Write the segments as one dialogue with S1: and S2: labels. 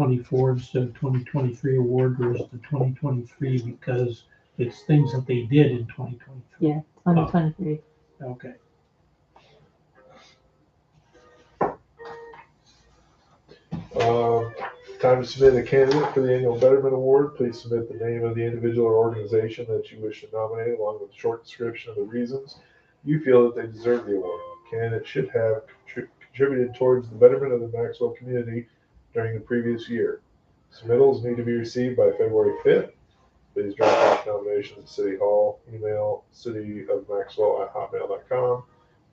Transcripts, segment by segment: S1: twenty-four instead of twenty twenty-three award versus the twenty twenty-three because it's things that they did in twenty twenty-three.
S2: Yeah, twenty twenty-three.
S1: Okay.
S3: Uh, Time to submit a candidate for the annual Betterment Award. Please submit the name of the individual or organization that you wish to nominate, along with a short description of the reasons you feel that they deserve the award. Candidates should have contri- contributed towards the betterment of the Maxwell community during the previous year. Submittals need to be received by February fifth. Please drop off nominations at City Hall, email cityofmaxwell@hotmail.com,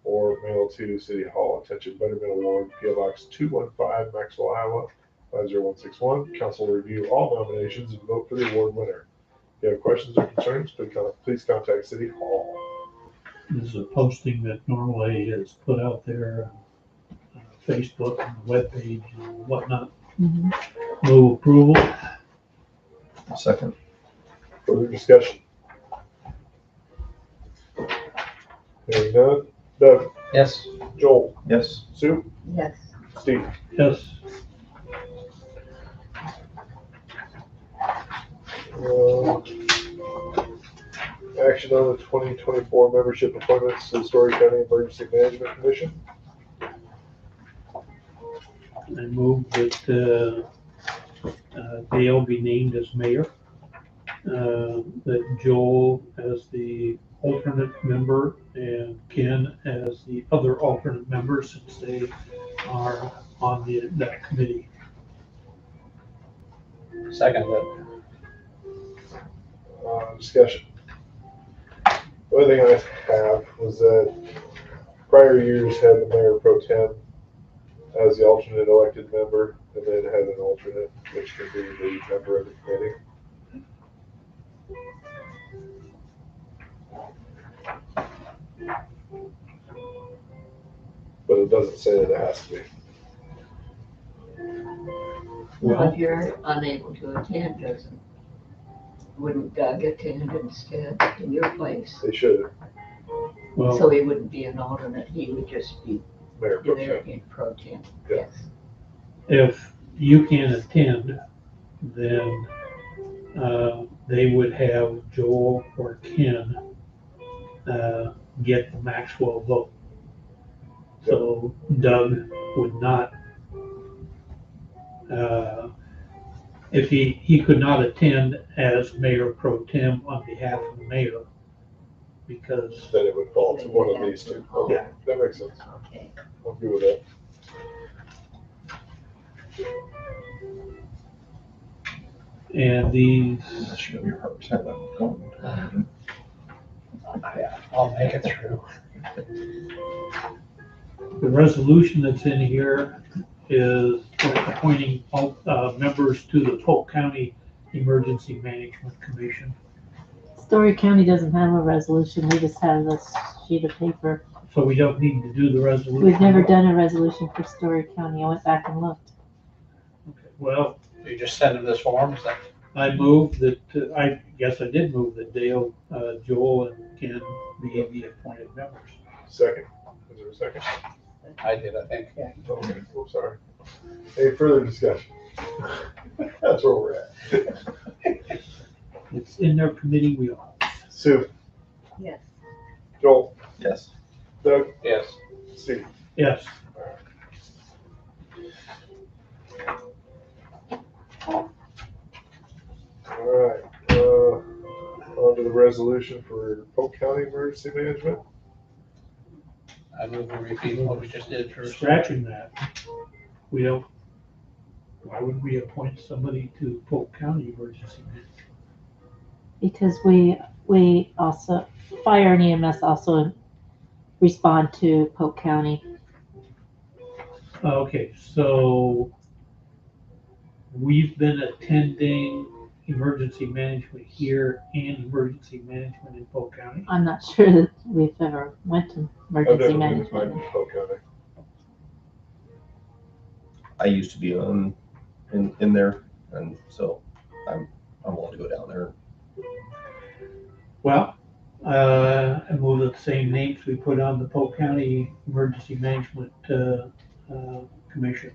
S3: or mail to City Hall. Attention Betterment Award, PO Box two one five, Maxwell, Iowa, 50161. Council will review all nominations and vote for the award winner. If you have questions or concerns, please con- please contact City Hall.
S1: This is a posting that normally is put out there on Facebook and the webpage and whatnot.
S4: Mm-hmm.
S2: Mhm.
S1: Move approval.
S5: Second.
S3: Further discussion? Hearing none. Doug,
S5: Yes.
S3: Joel,
S5: Yes.
S3: Sue,
S2: Yes.
S3: Steve.
S1: Yes.
S3: Uh, Action on the 2024 membership appointments to the Story County Emergency Management Commission.
S1: I move that uh, uh, Dale be named as mayor, uh, that Joel as the alternate member and Ken as the other alternate member since they are on the, that committee.
S5: Second. but-
S3: uh, discussion. The other thing I have was that prior years had the mayor pro tem as the alternate elected member, and then had an alternate, which could be the member of the committee. But it doesn't say that it has to be.
S4: Well, if you're unable to attend, doesn't, wouldn't Doug attend instead in your place?
S3: They should,
S1: Well,
S4: So he wouldn't be an alternate, he would just be
S3: mayor pro
S4: there
S3: tem.
S4: in pro tem,
S3: Yeah.
S4: yes.
S1: if you can attend, then uh, they would have Joel or Ken uh, get the Maxwell vote. So Doug would not, uh, if he, he could not attend as mayor pro tem on behalf of the mayor because
S3: Then it would fall to one of these two. Okay, that makes sense.
S4: Okay.
S3: I'm good with that.
S1: and these
S5: That should be represented.
S6: uh, I'll make it through.
S1: The resolution that's in here is appointing all, uh, members to the Polk County Emergency Management Commission.
S2: Story County doesn't have a resolution, we just have a sheet of paper.
S1: So we don't need to do the resolution.
S2: We've never done a resolution for Story County, I went back and looked.
S1: Okay, Well,
S6: You just send them this form, is that?
S1: I moved that, uh, I guess I did move that Dale, uh, Joel and Ken be the appointed members.
S3: Second. Is there a second? Oh,
S6: I did, I think.
S3: Okay, I'm sorry. Any further discussion? That's where we're at.
S1: It's in their committee wheel.
S3: Sue,
S4: Yes.
S3: Joel,
S5: Yes.
S3: Doug,
S6: Yes.
S3: Steve.
S1: Yes,
S3: All right, uh, on to the resolution for Polk County Emergency Management.
S6: I move we repeat what we just did
S1: we're
S6: for.
S1: scratching that. We don't, why would we appoint somebody to Polk County Emergency Management?
S2: Because we, we also, fire and EMS also respond to Polk County.
S1: Oh, Okay, so we've been attending emergency management here and emergency management in Polk County.
S2: I'm not sure that we've ever went to
S3: I've never
S2: emergency
S3: been to
S2: management.
S3: Polk County.
S5: I used to be on, in, in there, and so I'm, I'm willing to go down there.
S1: Well, uh, I move that the same names we put on the Polk County Emergency Management, uh, uh, Commission.